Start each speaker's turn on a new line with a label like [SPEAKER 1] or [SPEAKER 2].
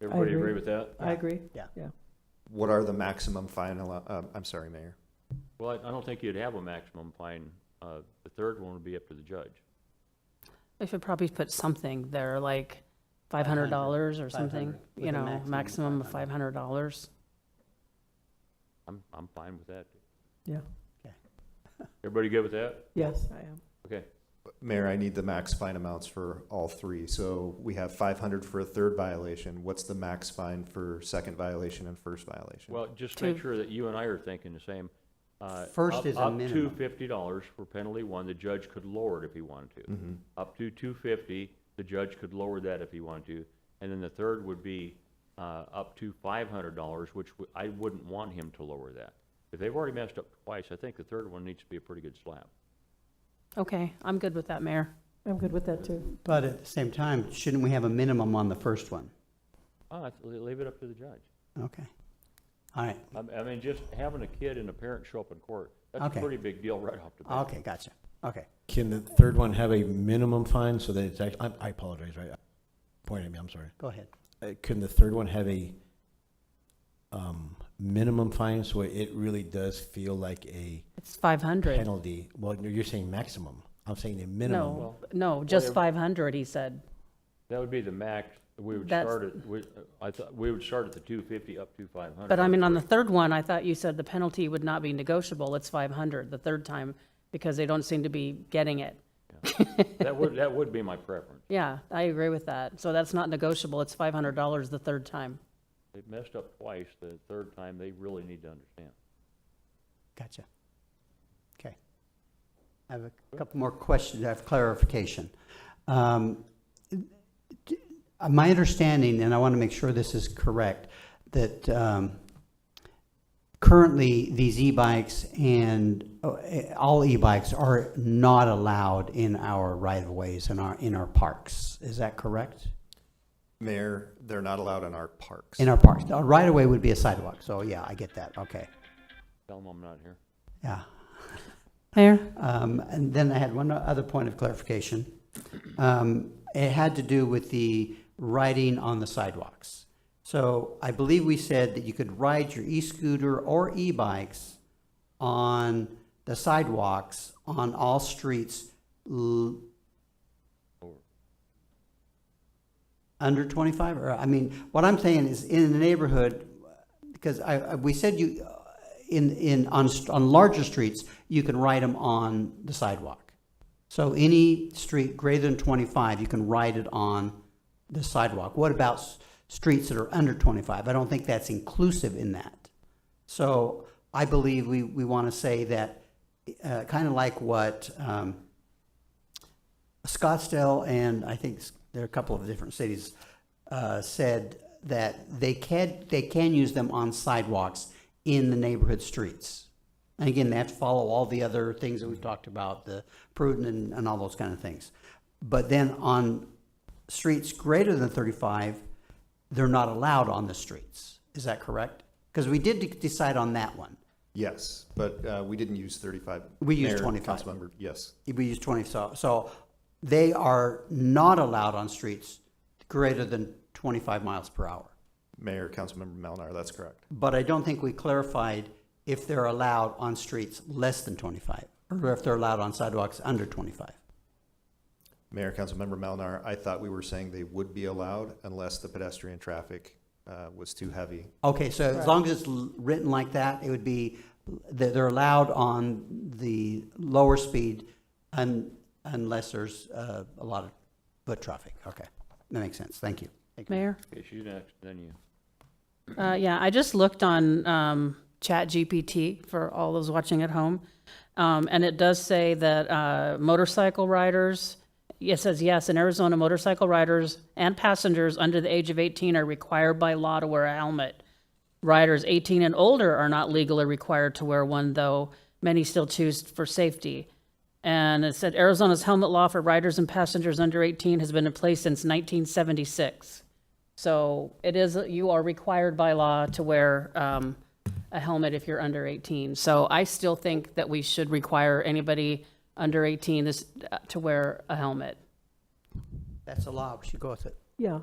[SPEAKER 1] Everybody
[SPEAKER 2] agree.
[SPEAKER 1] agree with that?
[SPEAKER 2] I agree.
[SPEAKER 3] What are the maximum fine, allo- uh, I'm sorry, Mayor.
[SPEAKER 1] Well, I I don't think you'd have a maximum fine. Uh, The third one would be up to the judge.
[SPEAKER 4] I should probably put something there, like five hundred dollars or something,
[SPEAKER 5] 500, with
[SPEAKER 4] you
[SPEAKER 5] a
[SPEAKER 4] know,
[SPEAKER 5] maximum of
[SPEAKER 4] maximum of five hundred dollars.
[SPEAKER 1] I'm, I'm fine with that.
[SPEAKER 2] Yeah.
[SPEAKER 5] Okay.
[SPEAKER 1] Everybody good with that?
[SPEAKER 2] Yes, I am.
[SPEAKER 1] Okay.
[SPEAKER 3] Mayor, I need the max fine amounts for all three. So we have 500 for a third violation. What's the max fine for second violation and first violation?
[SPEAKER 1] Well, just make
[SPEAKER 4] Two.
[SPEAKER 1] sure that you and I are thinking the same. Uh,
[SPEAKER 5] First
[SPEAKER 1] up-
[SPEAKER 5] is a
[SPEAKER 1] Up
[SPEAKER 5] minimum.
[SPEAKER 1] to fifty dollars for penalty one, the judge could lower it if he wanted to.
[SPEAKER 3] Mhm.
[SPEAKER 1] Up to two fifty, the judge could lower that if he wanted to. And then the third would be, uh, up to five hundred dollars, which w- I wouldn't want him to lower that. If they've already messed up twice, I think the third one needs to be a pretty good slap.
[SPEAKER 4] Okay, I'm good with that, Mayor.
[SPEAKER 2] I'm good with that too.
[SPEAKER 5] But at the same time, shouldn't we have a minimum on the first one?
[SPEAKER 1] Uh, leave it up to the judge.
[SPEAKER 5] Okay. All right,
[SPEAKER 1] I, I mean, just having a kid and a parent show up in court, that's a
[SPEAKER 5] Okay.
[SPEAKER 1] pretty big deal right off the bat.
[SPEAKER 5] okay, gotcha, okay.
[SPEAKER 6] Can the third one have a minimum fine so that it's act, I, I apologize, right? Point at me, I'm sorry.
[SPEAKER 5] Go ahead.
[SPEAKER 6] Uh, Can the third one have a, um, minimum fine so it really does feel like a
[SPEAKER 4] It's five hundred.
[SPEAKER 6] penalty? Well, you're saying maximum. I'm saying a minimum.
[SPEAKER 4] No, no, just
[SPEAKER 1] Whatever.
[SPEAKER 4] five hundred, he said.
[SPEAKER 1] That would be the max, we would
[SPEAKER 4] That's-
[SPEAKER 1] start at, we, I thought, we would start at the two fifty up to five hundred.
[SPEAKER 4] But I mean, on the third one, I thought you said the penalty would not be negotiable. It's five hundred the third time because they don't seem to be getting it.
[SPEAKER 1] That would, that would be my preference.
[SPEAKER 4] Yeah, I agree with that. So that's not negotiable. It's five hundred dollars the third time.
[SPEAKER 1] They messed up twice, the third time, they really need to understand.
[SPEAKER 5] Gotcha. Okay. I have a couple more questions, I have clarification. Um, d- uh, My understanding, and I want to make sure this is correct, that um, currently, these e-bikes and, uh, eh, all e-bikes are not allowed in our right-of-ways and our, in our parks. Is that correct?
[SPEAKER 3] Mayor, they're not allowed in our parks.
[SPEAKER 5] In our parks. A right-of-way would be a sidewalk, so yeah, I get that, okay,
[SPEAKER 1] Tell them I'm not here.
[SPEAKER 5] yeah.
[SPEAKER 4] Mayor?
[SPEAKER 5] Um, And then I had one other point of clarification. Um, It had to do with the riding on the sidewalks. So I believe we said that you could ride your e-scooter or e-bikes on the sidewalks on all streets l- under 25, or, I mean, what I'm saying is in the neighborhood, because I, I- we said you, uh, in, in, on, st- on larger streets, you can ride them on the sidewalk. So any street greater than 25, you can ride it on the sidewalk. What about s- streets that are under 25? I don't think that's inclusive in that. So I believe we, we want to say that, uh, kind of like what, um, Scottsdale and I think s- there are a couple of different cities uh, said that they can they can use them on sidewalks in the neighborhood streets. And again, they have to follow all the other things that we've talked about, the prudent and, and all those kind of things. But then on streets greater than thirty-five, they're not allowed on the streets. Is that correct? Because we did de- decide on that one.
[SPEAKER 3] Yes, but uh, we didn't use 35.
[SPEAKER 5] We used
[SPEAKER 3] Mayor,
[SPEAKER 5] 25.
[SPEAKER 3] Councilmember, yes.
[SPEAKER 5] we use twenty, so, so they are not allowed on streets greater than twenty-five miles per hour.
[SPEAKER 3] Mayor, Councilmember Melnar, that's correct.
[SPEAKER 5] But I don't think we clarified if they're allowed on streets less than twenty-five, or if they're allowed on sidewalks under twenty-five.
[SPEAKER 3] Mayor, Councilmember Melnar, I thought we were saying they would be allowed unless the pedestrian traffic uh, was too heavy.
[SPEAKER 5] Okay, so as long as it's l- written like that, it would be, that they're allowed on the lower speed un, unless there's, uh, a lot of foot traffic. Okay, that makes sense. Thank you. Thank you.
[SPEAKER 4] Mayor?
[SPEAKER 1] Okay, she's next, then you.
[SPEAKER 4] Uh, yeah, I just looked on um, Chat GPT for all those watching at home, um, and it does say that uh, motorcycle riders. It says yes in Arizona, motorcycle riders and passengers under the age of 18 are required by law to wear a helmet. Riders 18 and older are not legally required to wear one, though many still choose for safety. And it said Arizona's helmet law for riders and passengers under 18 has been in place since 1976. So it is, you are required by law to wear um, a helmet if you're under 18. So I still think that we should require anybody under 18 this- uh, to wear a helmet.
[SPEAKER 5] That's a law. We should go with it.
[SPEAKER 2] Yeah,